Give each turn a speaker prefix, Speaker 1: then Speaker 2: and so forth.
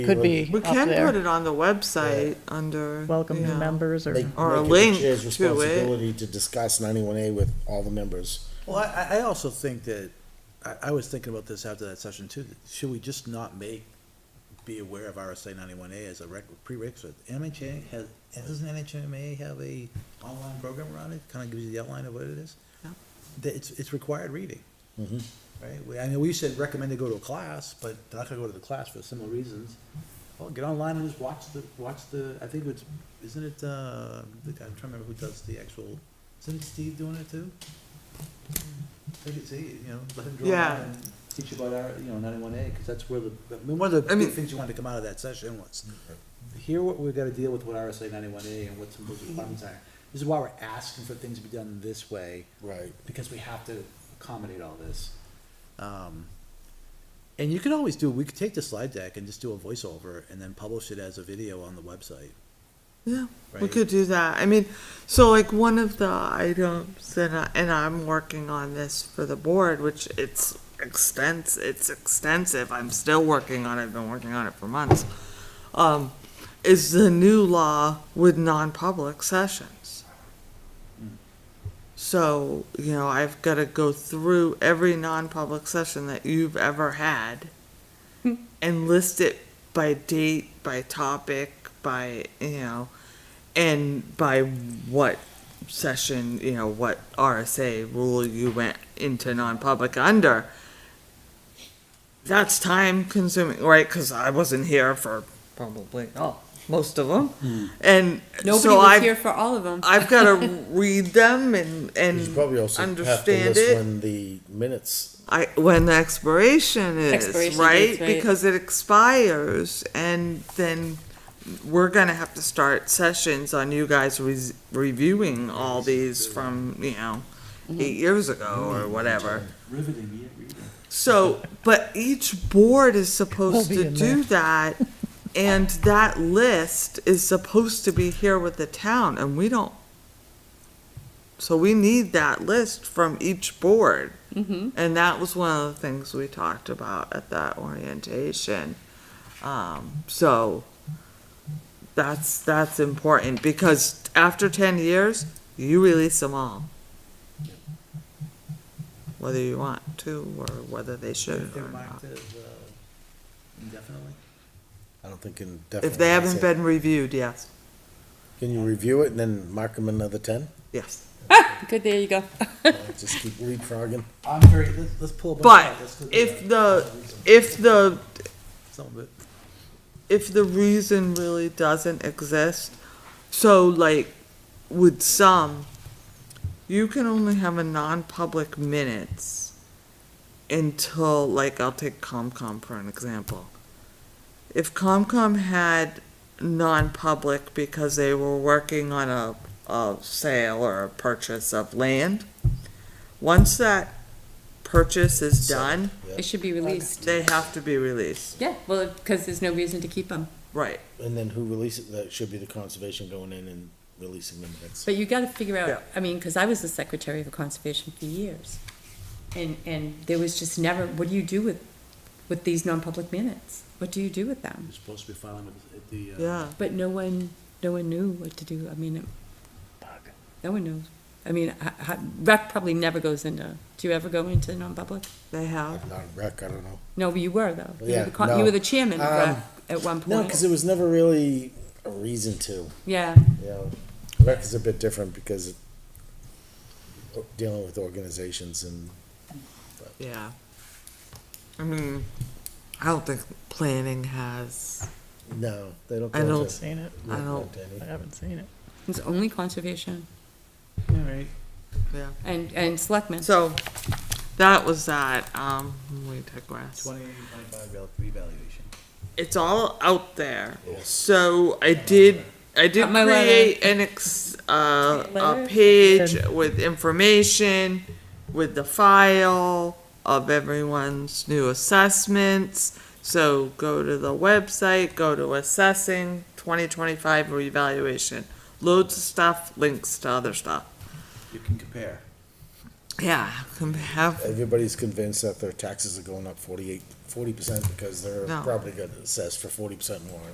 Speaker 1: Could be
Speaker 2: We
Speaker 1: up
Speaker 2: can put
Speaker 1: there.
Speaker 2: it on the website under.
Speaker 1: Welcome
Speaker 2: yeah.
Speaker 1: new members or,
Speaker 3: Make
Speaker 2: Or a
Speaker 3: make it the
Speaker 2: link eh?
Speaker 3: chair's
Speaker 2: to it.
Speaker 3: Responsibility to discuss ninety-one A with all the members.
Speaker 4: Well, I, I also think that, I, I was thinking about this after that session too, that should we just not make, be aware of RSA ninety-one A as a rec, prerequisite? MHA has, and doesn't NHMA have a online program around it, kinda gives you the outline of what it is?
Speaker 2: Yeah.
Speaker 4: That it's, it's required reading. Right, we, I mean, we said recommend to go to a class, but they're not gonna go to the class for similar reasons. Well, get online and just watch the, watch the, I think it's, isn't it, uh, I'm trying to remember who does the actual, isn't Steve doing it too? Take it, see, you know, let him draw
Speaker 2: Yeah.
Speaker 4: out and teach you about our, you know, ninety-one A, because that's where the, I mean, one of
Speaker 2: I
Speaker 4: the big
Speaker 2: mean- Mm-hmm.
Speaker 4: things you wanted to come out of that session was, hear what we've gotta deal with with RSA ninety-one A and what some of those requirements are. This is why we're asking for things to be done this way,
Speaker 3: Right.
Speaker 4: because we have to accommodate all this. Um, and you can always do, we could take the slide deck and just do a voiceover and then publish it as a video on the website.
Speaker 2: Yeah, we
Speaker 4: Right.
Speaker 2: could do that. I mean, so like one of the items, and I, and I'm working on this for the board, which it's extens, it's extensive. I'm still working on it. I've been working on it for months. Um, is the new law with non-public sessions. So, you know, I've gotta go through every non-public session that you've ever had and list it by date, by topic, by, you know, and by what session, you know, what RSA rule you went into non-public under. That's time consuming, right? Cause I wasn't here for probably, oh, most of
Speaker 3: Hmm.
Speaker 2: them. And
Speaker 5: Nobody
Speaker 2: so
Speaker 5: was
Speaker 2: I've,
Speaker 5: here for all of them.
Speaker 2: I've gotta read them and,
Speaker 3: You should
Speaker 2: and
Speaker 3: probably also have to
Speaker 2: understand
Speaker 3: list
Speaker 2: it.
Speaker 3: when the minutes,
Speaker 2: I, when the expiration is,
Speaker 5: Expiration
Speaker 2: right?
Speaker 5: dates, right.
Speaker 2: Because it expires and then we're gonna have to start sessions on you guys res- reviewing all these from, you know, eight years ago or whatever.
Speaker 4: Riveting, yeah, reading.
Speaker 2: So, but each board is supposed
Speaker 1: We'll be
Speaker 2: to
Speaker 1: in
Speaker 2: do that. And that list is supposed to be here with the town and we don't. So we need that list from each board.
Speaker 5: Mm-hmm.
Speaker 2: And that was one of the things we talked about at that orientation. Um, so that's, that's important because after ten years, you release them all. Whether you want to or whether they should
Speaker 4: They're
Speaker 2: or not.
Speaker 4: marked as, uh, indefinitely.
Speaker 3: I don't think can definitely.
Speaker 2: If they haven't been reviewed, yes,
Speaker 3: Can you review it and then mark them another ten?
Speaker 2: yes.
Speaker 5: Good, there you go.
Speaker 3: Just keep leapfrogging.
Speaker 4: I'm very, let's, let's pull a bunch
Speaker 2: But
Speaker 4: out, let's do
Speaker 2: if
Speaker 4: that.
Speaker 2: If the,
Speaker 4: Some of it.
Speaker 2: if the reason really doesn't exist, so like with some, you can only have a non-public minutes until, like, I'll take ComCom for an example. If ComCom had non-public because they were working on a, a sale or a purchase of land, once that purchase is done,
Speaker 5: It should be released.
Speaker 2: they have to be released,
Speaker 5: Yeah, well, because there's no reason to keep them.
Speaker 2: right?
Speaker 3: And then who releases, that should be the conservation going in and releasing the minutes.
Speaker 5: But you got to figure
Speaker 2: Yeah.
Speaker 5: out, I mean, because I was the secretary for conservation for years. And, and there was just never, what do you do with, with these non-public minutes? What do you do with them?
Speaker 4: You're supposed to be filing with, at the, uh.
Speaker 2: Yeah.
Speaker 5: But no one, no one knew what to do. I mean, it- no one knows. I mean, I- I- rec probably never goes into, do you ever go into non-public?
Speaker 2: They have.
Speaker 3: Not rec, I don't know.
Speaker 5: No, but you were though. You were
Speaker 3: Yeah,
Speaker 5: the con-
Speaker 3: no.
Speaker 5: You were the chairman of rec
Speaker 3: Um,
Speaker 5: at one
Speaker 3: No, because
Speaker 5: point.
Speaker 3: it was never really a reason to,
Speaker 5: Yeah.
Speaker 3: you know. Rec is a bit different because it- dealing with organizations and
Speaker 2: Yeah. I mean, I don't think planning has.
Speaker 3: No, they don't.
Speaker 2: I
Speaker 3: go
Speaker 2: don't-
Speaker 3: to-
Speaker 1: seen it.
Speaker 3: they
Speaker 2: I
Speaker 3: go
Speaker 2: don't-
Speaker 3: to any.
Speaker 1: I haven't seen it.
Speaker 5: It's only conservation
Speaker 4: All right.
Speaker 2: Yeah.
Speaker 5: and, and selectmen.
Speaker 2: So that was that. Um, we digress.
Speaker 4: Twenty, twenty-five rel- revaluation.
Speaker 2: It's all out there.
Speaker 3: Yes.
Speaker 2: So I did. I did
Speaker 5: Got my letter.
Speaker 2: create an ex uh, a
Speaker 5: Letter?
Speaker 2: page with information, with the file of everyone's new assessments. So go to the website. Go to assessing 2025 reevaluation. Loads of stuff. Links to other stuff.
Speaker 4: You can compare.
Speaker 2: Yeah, can have,
Speaker 3: Everybody's convinced that their taxes are going up forty-eight, forty percent because their
Speaker 2: No.
Speaker 3: property got assessed for forty percent more.